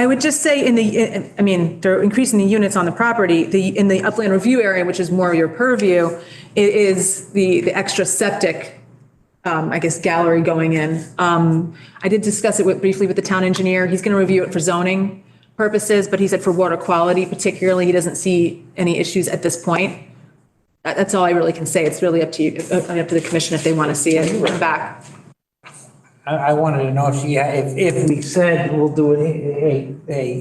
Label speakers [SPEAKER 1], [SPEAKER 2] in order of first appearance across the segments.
[SPEAKER 1] I would just say in the, I mean, they're increasing the units on the property, the, in the upland review area, which is more your purview, it is the, the extra septic, um, I guess, gallery going in. Um, I did discuss it with- briefly with the town engineer. He's going to review it for zoning purposes, but he said for water quality particularly, he doesn't see any issues at this point. That- That's all I really can say. It's really up to you, uh, up to the commission if they want to see it come back.
[SPEAKER 2] I, I wanted to know if she, if, if we said we'll do a, a,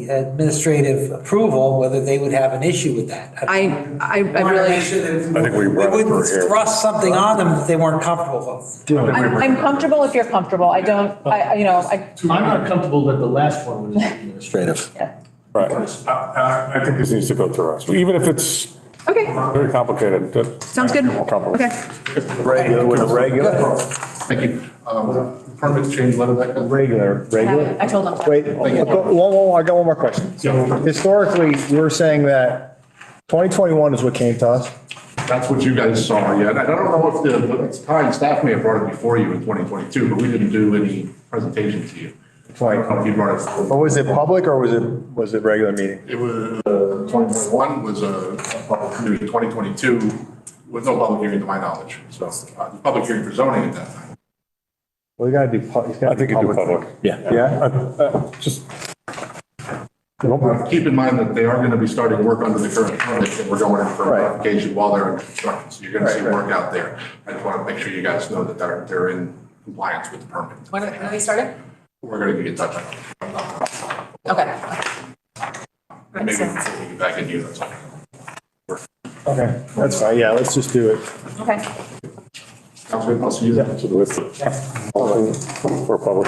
[SPEAKER 2] a administrative approval, whether they would have an issue with that.
[SPEAKER 1] I, I, I
[SPEAKER 2] wanna
[SPEAKER 1] really.
[SPEAKER 2] make sure that
[SPEAKER 3] I think we brought it
[SPEAKER 2] wouldn't
[SPEAKER 3] for here.
[SPEAKER 2] Thrust something on them that they weren't comfortable with.
[SPEAKER 1] I'm I'm comfortable if you're comfortable. I don't, I, I- you know, I,
[SPEAKER 4] I'm not comfortable that the last one was administrative.
[SPEAKER 3] Right. I- Uh, I, I think this needs to go through us, even if it's
[SPEAKER 1] okay,
[SPEAKER 3] very complicated. that-
[SPEAKER 1] sounds good.
[SPEAKER 3] More complicated.
[SPEAKER 1] Okay.
[SPEAKER 5] Regular, with a regular,
[SPEAKER 6] Thank you. Um, Permits change letter that comes.
[SPEAKER 5] regular, regular.
[SPEAKER 1] I told them.
[SPEAKER 5] Wait, one, more- I got one more question. So Historically, we were saying that 2021 is what came to us.
[SPEAKER 6] That's what you guys saw, yeah. And I don't know if the, it's time, staff may have brought it before you in 2022, but we didn't do any presentation to you. I don't know if you brought it.
[SPEAKER 5] Or was it public or was it, was it regular meeting?
[SPEAKER 6] It was, uh, 2021 was a a public hearing, 2022 was no public hearing to my knowledge. So, uh, public hearing for zoning at that time.
[SPEAKER 5] Well, you gotta do. pu- it's gotta
[SPEAKER 3] I think
[SPEAKER 5] be
[SPEAKER 3] you do public. Yeah. uh,
[SPEAKER 5] Yeah?
[SPEAKER 3] Just,
[SPEAKER 6] Uh, Keep in mind that they are going to be starting work under the current permit, and we're going in for
[SPEAKER 5] Right.
[SPEAKER 6] modification while they're in construction. So you're going to see
[SPEAKER 5] Right, right.
[SPEAKER 6] work out there. I just want to make sure you guys know that they're, they're in compliance with the permit.
[SPEAKER 1] When, when we started?
[SPEAKER 6] We're going to be in touch on it.
[SPEAKER 1] Okay.
[SPEAKER 6] And Maybe before we get back in you, that's all.
[SPEAKER 5] Okay, that's fine. Yeah, let's just do it.
[SPEAKER 1] Okay.
[SPEAKER 6] Sounds good. I'll see you then.
[SPEAKER 3] to the list. For public.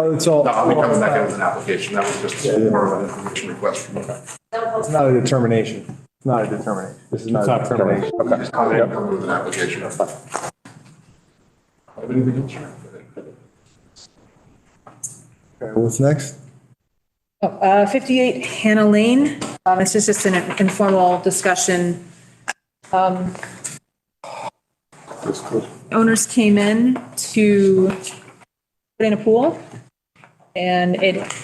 [SPEAKER 5] Oh, It's all,
[SPEAKER 6] No, I'll be coming back in with an application. That was just more of an information request from you.
[SPEAKER 5] it's not a determination. It's not a determination. This is not a determination.
[SPEAKER 6] Just come in, come in with an application. Have anything else? Sharon?
[SPEAKER 5] Okay, What's next?
[SPEAKER 1] Uh, 58 Hannah Lane, Um, this is just an informal discussion. Um, Owners came in to put in a pool, and it,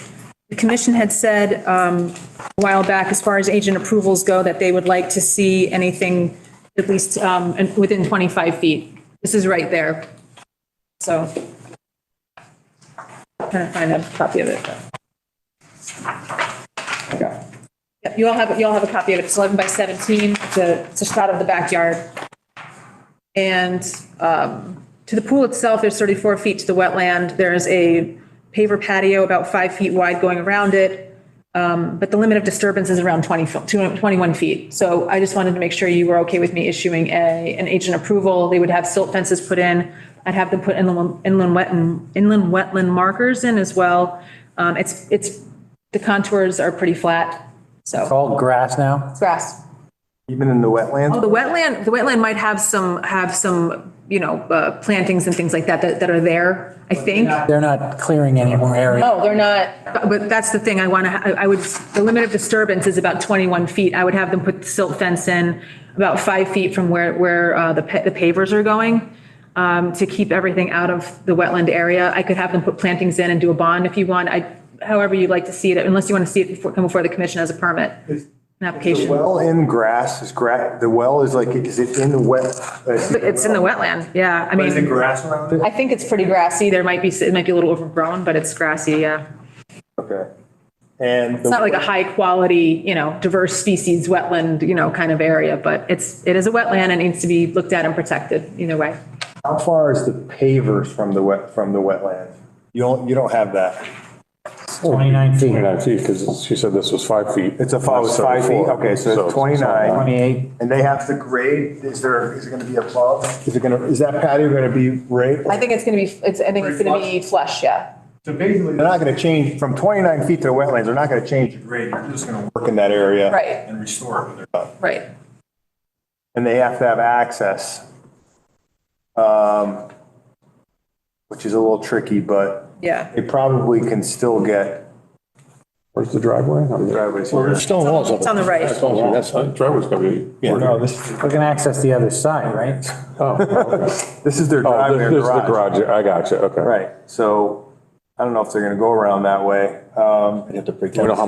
[SPEAKER 1] the commission had said um, a while back, as far as agent approvals go, that they would like to see anything at least um, and within 25 feet. This is right there. So, trying to find a copy of it. Yep, You all have, you all have a copy of it. It's 11 by 17. It's a, it's a shot of the backyard. And um, to the pool itself, there's 34 feet to the wetland. There is a paver patio about five feet wide going around it. Um, But the limit of disturbance is around 20, fo- 21 feet. So I just wanted to make sure you were okay with me issuing a, an agent approval. They would have silt fences put in. I'd have them put inland, inland wet, inland wetland markers in as well. Um, It's, it's, the contours are pretty flat, so.
[SPEAKER 2] All grass now?
[SPEAKER 1] Grass.
[SPEAKER 5] Even in the wetlands?
[SPEAKER 1] Oh, the wetland, the wetland might have some, have some, you know, uh, plantings and things like that, that, that are there, I think.
[SPEAKER 2] They're not clearing any more area.
[SPEAKER 1] No, Oh, they're not. But that's the thing, I want to, I would, the limit of disturbance is about 21 feet. I would have them put the silt fence in about five feet from where, where uh, the pa- the pavers are going um, to keep everything out of the wetland area. I could have them put plantings in and do a bond if you want. I, however you'd like to see it, unless you want to see it before, come before the commission as a permit, an
[SPEAKER 5] The
[SPEAKER 1] application.
[SPEAKER 5] well in grass is gra, the well is like, is it in the wet?
[SPEAKER 1] It's in the wetland, yeah. I mean.
[SPEAKER 5] Is it grass around it?
[SPEAKER 1] I think it's pretty grassy. There might be, it might be a little overgrown, but it's grassy, yeah.
[SPEAKER 5] Okay. And.
[SPEAKER 1] It's not like a high quality, you know, diverse species wetland, you know, kind of area, but it's, it is a wetland and needs to be looked at and protected either way.
[SPEAKER 5] How far is the pavers from the wet, from the wetland? You don't, you don't have that.
[SPEAKER 2] 29 feet.
[SPEAKER 3] 29 feet, because she said this was five feet.
[SPEAKER 5] It's a five, it's five feet,
[SPEAKER 3] 34.
[SPEAKER 5] okay, so it's 29.
[SPEAKER 2] 28.
[SPEAKER 5] And they have to grade, is there, is it gonna be above? Is it gonna, is that patio gonna be right?
[SPEAKER 1] I think it's going to be, it's, I think it's going to be flush, yeah.
[SPEAKER 5] So basically. They're not gonna change, from 29 feet to the wetlands, they're not gonna change the grade, they're just gonna work in that area.
[SPEAKER 1] Right,
[SPEAKER 5] And restore it when they're done.
[SPEAKER 1] right.
[SPEAKER 5] And they have to have access. Um, Which is a little tricky, but
[SPEAKER 1] Yeah.
[SPEAKER 5] they probably can still get
[SPEAKER 3] Where's the driveway?
[SPEAKER 5] driveways here.
[SPEAKER 7] Stone walls up.
[SPEAKER 1] It's on the right.
[SPEAKER 7] That's all, that's all.
[SPEAKER 3] Driveway's gonna be.
[SPEAKER 5] Yeah, no, this,
[SPEAKER 2] We can access the other side, right?
[SPEAKER 3] Oh, okay.
[SPEAKER 5] this is their
[SPEAKER 3] Oh,
[SPEAKER 5] driveway
[SPEAKER 3] this
[SPEAKER 5] or
[SPEAKER 3] this is the garage, I got you, okay.
[SPEAKER 5] Right, so I don't know if they're gonna go around that way. Um,
[SPEAKER 7] You have to break
[SPEAKER 3] We
[SPEAKER 7] down.
[SPEAKER 3] don't have